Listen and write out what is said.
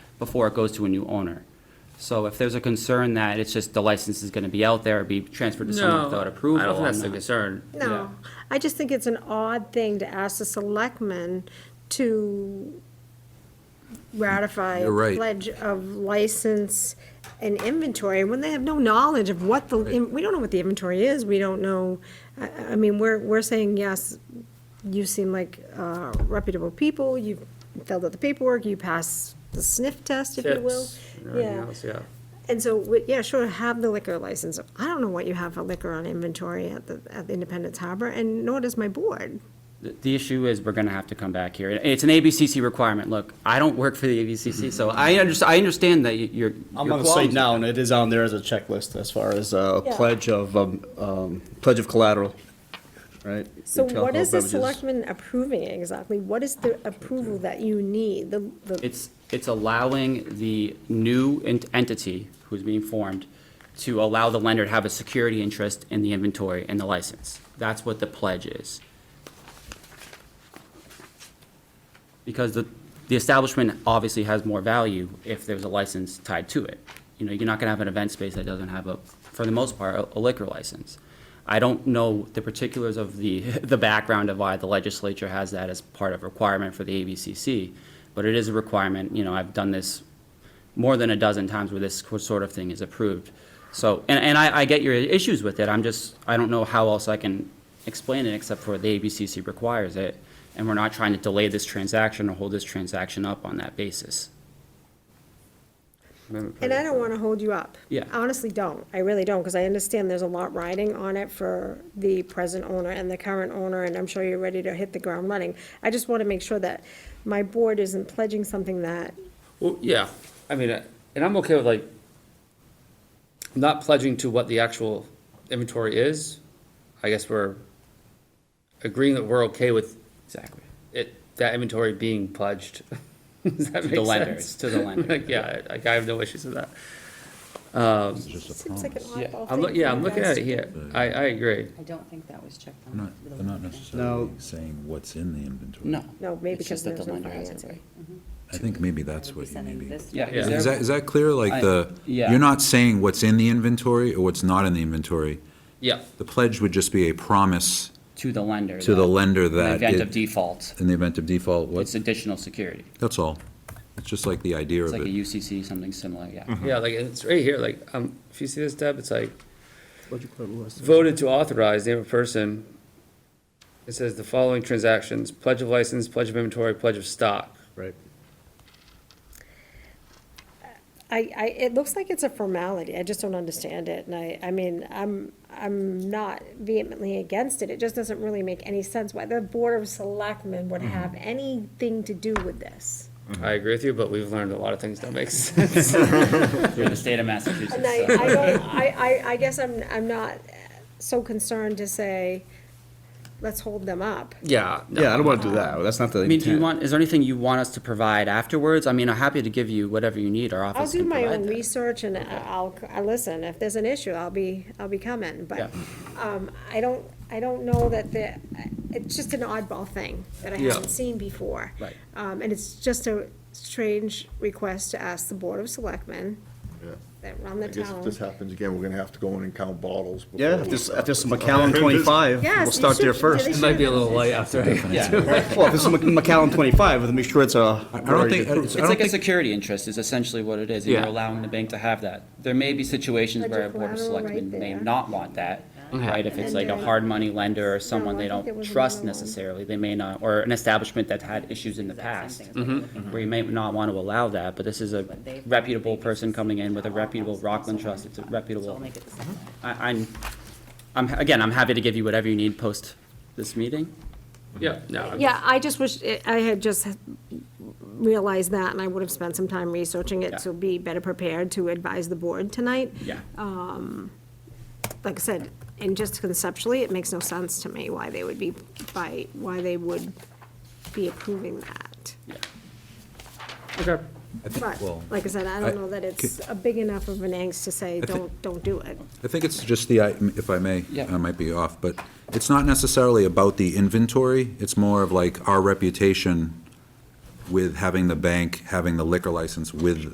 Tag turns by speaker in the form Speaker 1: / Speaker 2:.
Speaker 1: before it goes to a new owner. So if there's a concern that it's just the license is gonna be out there, be transferred to someone
Speaker 2: No,
Speaker 1: without approval.
Speaker 2: I don't think
Speaker 1: I'm
Speaker 2: that's the
Speaker 1: not-
Speaker 2: concern. Yeah.
Speaker 3: No, I just think it's an odd thing to ask the selectmen to ratify a
Speaker 4: You're right.
Speaker 3: pledge of license and inventory, when they have no knowledge of what the, we don't know what the inventory is, we don't know, I, I mean, we're, we're saying, yes, you seem like uh, reputable people, you filled out the paperwork, you passed the sniff test, if you will.
Speaker 2: Tips and everything
Speaker 3: Yeah.
Speaker 2: else, yeah.
Speaker 3: And so, we- yeah, sure, have the liquor license. I don't know what you have for liquor on inventory at the, at the Independence Harbor, and nor does my board.
Speaker 1: The- The issue is, we're gonna have to come back here. And It's an ABCC requirement. Look, I don't work for the
Speaker 2: Mm-hmm.
Speaker 1: ABCC, so I under, I understand that you- you're.
Speaker 5: I'm
Speaker 1: your
Speaker 5: on the site
Speaker 1: qualms-
Speaker 5: now, and it is on there as a checklist as far as uh, a
Speaker 3: Yeah.
Speaker 5: pledge of, um, um, pledge of collateral, right?
Speaker 3: So
Speaker 5: Alcohol
Speaker 3: what is the
Speaker 5: beverages.
Speaker 3: selectmen approving exactly? What is the approval that you need? The, the,
Speaker 1: It's, it's allowing the new ent- entity who's being formed to allow the lender to have a security interest in the inventory and the license. That's what the pledge is. Because the, the establishment obviously has more value if there's a license tied to it. You know, you're not gonna have an event space that doesn't have a, for the most part, a- a liquor license. I don't know the particulars of the, the background of why the legislature has that as part of requirement for the ABCC, but it is a requirement, you know, I've done this more than a dozen times where this sort of thing is approved. So, and, and I, I get your issues with it, I'm just, I don't know how else I can explain it except for the ABCC requires it, and we're not trying to delay this transaction or hold this transaction up on that basis.
Speaker 3: and I don't wanna hold you up.
Speaker 1: Yeah.
Speaker 3: I Honestly, don't. I really don't, because I understand there's a lot riding on it for the present owner and the current owner, and I'm sure you're ready to hit the ground running. I just wanna make sure that my board isn't pledging something that
Speaker 2: Well, yeah, I mean, uh, and I'm okay with like, not pledging to what the actual inventory is. I guess we're agreeing that we're okay with
Speaker 1: Exactly.
Speaker 2: it, that inventory being pledged. Does that
Speaker 1: To the
Speaker 2: make
Speaker 1: lenders,
Speaker 2: sense?
Speaker 1: to the lender.
Speaker 2: Like, yeah, like I have no issues with that.
Speaker 3: seems like an oddball
Speaker 2: Yeah,
Speaker 3: thing.
Speaker 2: I'm, loo-
Speaker 3: for
Speaker 2: yeah, I'm
Speaker 3: you
Speaker 2: looking
Speaker 3: guys
Speaker 2: at
Speaker 3: to
Speaker 2: it
Speaker 3: do.
Speaker 2: here. I, I agree.
Speaker 6: I don't think that was checked
Speaker 4: They're
Speaker 6: on.
Speaker 4: not,
Speaker 6: with a
Speaker 4: they're not
Speaker 6: lender.
Speaker 4: necessarily
Speaker 5: No.
Speaker 4: saying what's in the inventory.
Speaker 1: No.
Speaker 3: No, maybe
Speaker 1: It's just that
Speaker 3: because
Speaker 1: the
Speaker 3: there's
Speaker 1: lender
Speaker 3: no
Speaker 1: has it,
Speaker 3: financing.
Speaker 1: right?
Speaker 4: I think maybe that's
Speaker 6: We'll be
Speaker 4: what you
Speaker 6: sending
Speaker 4: maybe.
Speaker 6: this
Speaker 1: Yeah,
Speaker 6: to
Speaker 1: is
Speaker 6: the-
Speaker 1: there-
Speaker 4: Is that, is that clear?
Speaker 1: I-
Speaker 4: Like the,
Speaker 1: yeah.
Speaker 4: you're not saying what's in the inventory or what's not in the inventory.
Speaker 2: Yeah,
Speaker 4: The pledge would just be a promise
Speaker 1: To the lender.
Speaker 4: to the
Speaker 1: that-
Speaker 4: lender
Speaker 1: In the
Speaker 4: that.
Speaker 1: event
Speaker 4: it-
Speaker 1: of default,
Speaker 4: In the event of default,
Speaker 1: it's
Speaker 4: what,
Speaker 1: additional security.
Speaker 4: that's all. It's just like the idea
Speaker 1: It's
Speaker 4: of
Speaker 1: like a
Speaker 4: it.
Speaker 1: UCC, something similar, yeah.
Speaker 2: yeah, like, it's right here, like, um, if you see this, Deb, it's like,
Speaker 5: Pledge of collateral was-
Speaker 2: voted to authorize name of person. It says the following transactions, pledge of license, pledge of inventory, pledge of stock.
Speaker 5: Right.
Speaker 3: I, I, it looks like it's a formality, I just don't understand it, and I, I mean, I'm, I'm not vehemently against it, it just doesn't really make any sense why the Board of Selectmen would have anything to do with this.
Speaker 2: I agree with you, but we've learned a lot of things don't make sense.
Speaker 1: Through the state of Massachusetts.
Speaker 3: And I,
Speaker 1: so-
Speaker 3: I don't, I, I, I guess I'm, I'm not so concerned to say, let's hold them up.
Speaker 2: Yeah. no.
Speaker 5: Yeah, I don't want to do that. That's not the
Speaker 1: I mean, do you
Speaker 5: intent.
Speaker 1: want, is there anything you want us to provide afterwards? I mean, I'm happy to give you whatever you need, our
Speaker 3: I'll
Speaker 1: office
Speaker 3: do
Speaker 1: can
Speaker 3: my
Speaker 1: provide
Speaker 3: own
Speaker 1: that.
Speaker 3: research and I'll, I listen, if there's an issue, I'll be, I'll be coming,
Speaker 1: Yeah.
Speaker 3: but, um, I don't, I don't know that the, it's just an oddball thing that I
Speaker 2: Yeah.
Speaker 3: haven't seen before.
Speaker 1: Right.
Speaker 3: Um, and it's just a strange request to ask the Board of Selectmen
Speaker 7: Yeah.
Speaker 3: that run the
Speaker 7: I guess if
Speaker 3: town.
Speaker 7: this happens again, we're gonna have to go in and count bottles. before
Speaker 5: Yeah, if
Speaker 7: we
Speaker 5: there's, if
Speaker 7: start.
Speaker 5: there's some McAllen twenty-five,
Speaker 3: Yes,
Speaker 5: we'll
Speaker 3: you
Speaker 5: start there
Speaker 3: should- yeah,
Speaker 5: first.
Speaker 3: they
Speaker 2: It might be a
Speaker 3: should.
Speaker 2: little light after. Yeah.
Speaker 5: Well, if it's a Mc- McAllen twenty-five, then make sure it's a.
Speaker 4: I don't think, I
Speaker 1: It's
Speaker 4: don't
Speaker 1: like a
Speaker 4: think,
Speaker 1: security interest is essentially what it is, and you're allowing the bank to have that. There may be situations
Speaker 3: Pledge
Speaker 1: where a
Speaker 3: of
Speaker 1: board of
Speaker 3: collateral right
Speaker 1: selectmen may
Speaker 3: there.
Speaker 1: not want that, right? If it's
Speaker 3: And
Speaker 1: like a
Speaker 3: then-
Speaker 1: hard money lender or
Speaker 3: No,
Speaker 1: someone
Speaker 3: I
Speaker 1: they
Speaker 3: think there
Speaker 1: don't
Speaker 3: was
Speaker 1: trust
Speaker 3: another one.
Speaker 1: necessarily, they may not, or an establishment that's had issues in the
Speaker 6: Exact
Speaker 1: past,
Speaker 6: same thing
Speaker 4: Mm-hmm.
Speaker 6: as what we're looking at.
Speaker 1: where you may not want to allow that, but this is a
Speaker 6: But they've-
Speaker 1: reputable person coming in with a
Speaker 6: All of
Speaker 1: reputable
Speaker 6: us,
Speaker 1: Rockland
Speaker 6: so we'll
Speaker 1: Trust, it's a
Speaker 6: make it- So
Speaker 1: reputable.
Speaker 6: we'll make it the same.
Speaker 1: I, I'm, I'm, again, I'm happy to give you whatever you need post this meeting.
Speaker 2: Yeah, no. I'm-
Speaker 3: Yeah, I just wish, it- I had just realized that, and I would have spent some time researching
Speaker 1: Yeah.
Speaker 3: it to be better prepared to advise the board tonight.
Speaker 1: Yeah.
Speaker 3: Like I said, and just conceptually, it makes no sense to me why they would be, by, why they would be approving that.
Speaker 2: Okay.
Speaker 4: I think,
Speaker 3: But,
Speaker 4: well,
Speaker 3: like I said, I don't know that it's a big enough of an angst to say, don't, don't do it.
Speaker 4: I think it's just the, i- if I may,
Speaker 1: Yeah.
Speaker 4: I might be off, but it's not necessarily about the inventory. It's more of like our reputation with having the bank, having the liquor license with